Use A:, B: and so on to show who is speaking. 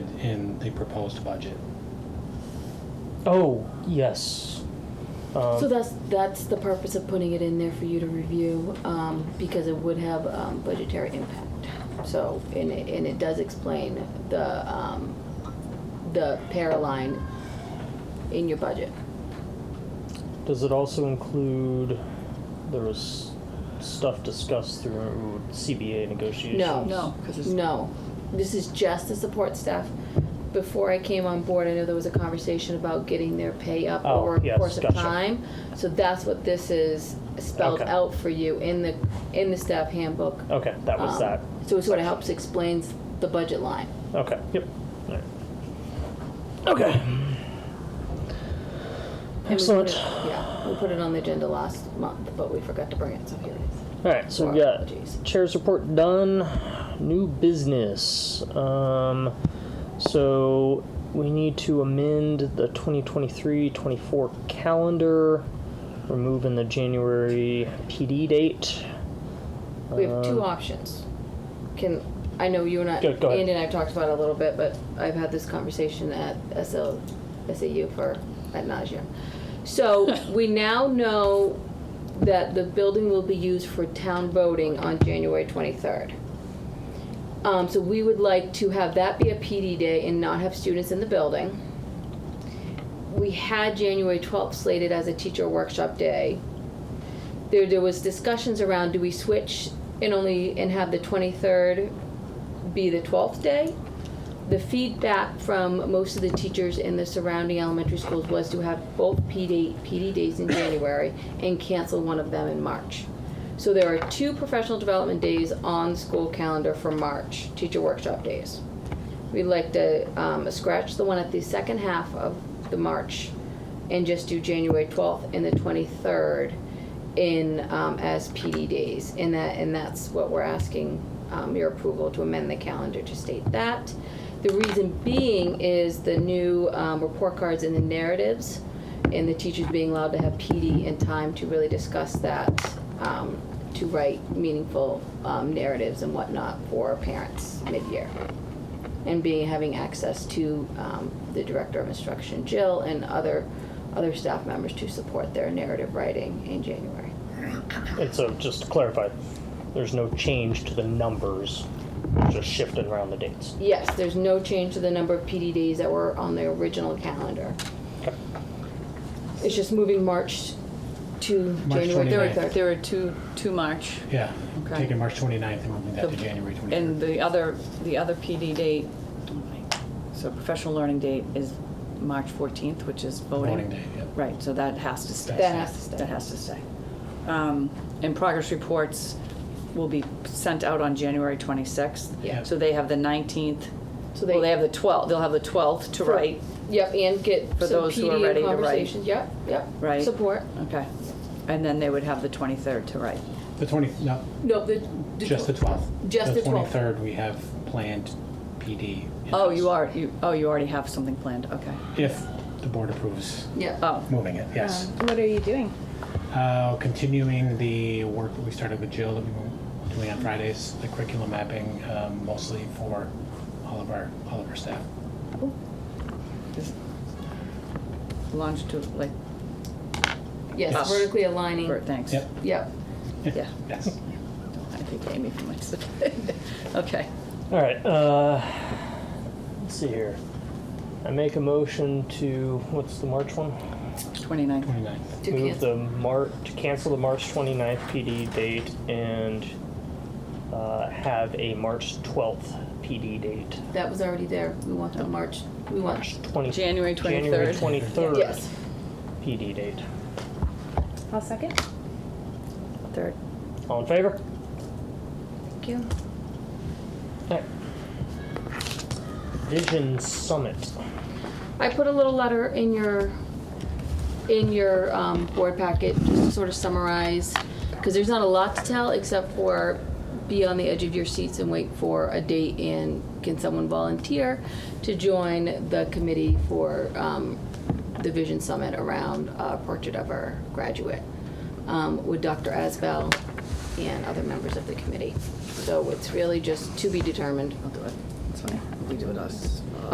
A: a proposed budget.
B: Oh, yes. Um,
C: So that's, that's the purpose of putting it in there for you to review, um, because it would have, um, budgetary impact. So, and it, and it does explain the, um, the para line in your budget.
B: Does it also include, there was stuff discussed through CBA negotiations?
C: No.
D: No, 'cause it's-
C: No, this is just the support staff. Before I came on board, I know there was a conversation about getting their pay up
B: Oh,
C: over a
B: yes,
C: course of
B: gotcha.
C: time. So that's what this is spelled
B: Okay.
C: out for you in the, in the staff handbook.
B: Okay, that was
C: Um,
B: that.
C: So it sort of helps explains the budget line.
B: Okay, yep. All right. Okay.
C: And we put
B: Excellent.
C: it- Yeah, we put it on the agenda last month, but we forgot to bring it, so here it is.
B: All right, so we
C: Our
B: got
C: apologies.
B: chair's report done. New business. Um, so we need to amend the 2023-24 calendar, removing the January PD date.
C: We have two
B: Um,
C: options. Can, I know you and I,
B: Go- go ahead.
C: Andy and I have talked about it a little bit, but I've had this conversation at SL, SAU for, at nausea. So we now know that the building will be used for town voting on January twenty-third. Um, so we would like to have that be a PD day and not have students in the building. We had January twelfth slated as a teacher workshop day. There, there was discussions around, do we switch and only, and have the twenty-third be the twelfth day? The feedback from most of the teachers in the surrounding elementary schools was to have both PD, PD days in January and cancel one of them in March. So there are two professional development days on the school calendar for March, teacher workshop days. We'd like to um, scratch the one at the second half of the March and just do January 12th and the 23rd in, um, as PD days. And that, and that's what we're asking um, your approval to amend the calendar to state that. The reason being is the new um, report cards and the narratives and the teachers being allowed to have PD and time to really discuss that, um, to write meaningful um, narratives and whatnot for parents mid-year and being having access to um, the director of instruction, Jill, and other other staff members to support their narrative writing in January.
B: And so, just to clarify, there's no change to the numbers, just shifted around the dates.
C: Yes, there's no change to the number of PD days that were on the original calendar.
B: Okay.
C: It's just moving March to
A: March
C: January
A: 29th.
C: 23rd.
D: There were two, two March,
A: Yeah,
D: Okay.
A: taking March 29th and moving that to
D: The-
A: January 23rd.
D: and the other, the other PD date, so professional learning date is March 14th, which is voting.
A: Voting day, yeah.
D: Right, so that has to stay.
C: That has to stay.
D: That has to stay. Um, And progress reports will be sent out on January 26th.
A: Yeah.
D: So they have the 19th,
C: So they-
D: well, they have the 12th, they'll have the 12th to
C: For-
D: write.
C: Yep, and get
D: For
C: some
D: those who
C: PD
D: are ready to write.
C: conversations. Yep, yep.
D: Right.
C: Support.
D: Okay. And then they would have the 23rd to write.
A: The 20th, no,
C: No, the, the
A: just the 12th.
C: Just the 12th.
A: 23rd, we have planned PD. in
D: Oh,
A: place.
D: you are, you, oh, you already have something planned, okay.
A: If the board approves
C: Yep.
D: Oh,
A: moving it, yes.
E: Um, What are you doing?
A: Uh, continuing the work that we started with Jill that we were doing on Fridays, the curriculum mapping, um, mostly for all of our, all of our staff.
D: is longitude, like,
C: Yes,
D: Oh.
A: Yes.
C: vertically aligning.
D: for- thanks.
A: Yep,
C: Yep.
D: Yeah,
A: yes.
D: I think Amy from Winston. Okay,
B: All right. Uh, let's see here. I make a motion to what's the March one?
D: 29.
A: 29th.
C: To
B: Move
C: cancel.
B: the Mar to cancel the March 29th PD date and uh, have a March 12th PD date.
C: That was already there. We want the March, we want
B: March 20
D: January
B: January
D: 23rd.
B: 23rd
C: Yes.
B: PD date.
E: I'll second.
D: Third.
B: All in favor?
C: Thank you.
B: All right. Vision Summit.
C: I put a little letter in your, in your um, board packet, just to sort of summarize, because there's not a lot to tell, except for be on the edge of your seats and wait for a date, and can someone volunteer to join the committee for um, the Vision Summit around a portrait of our graduate um, with Dr. Asbell and other members of the committee. So it's really just to be determined.
D: I'll do it. It's fine. We do it us.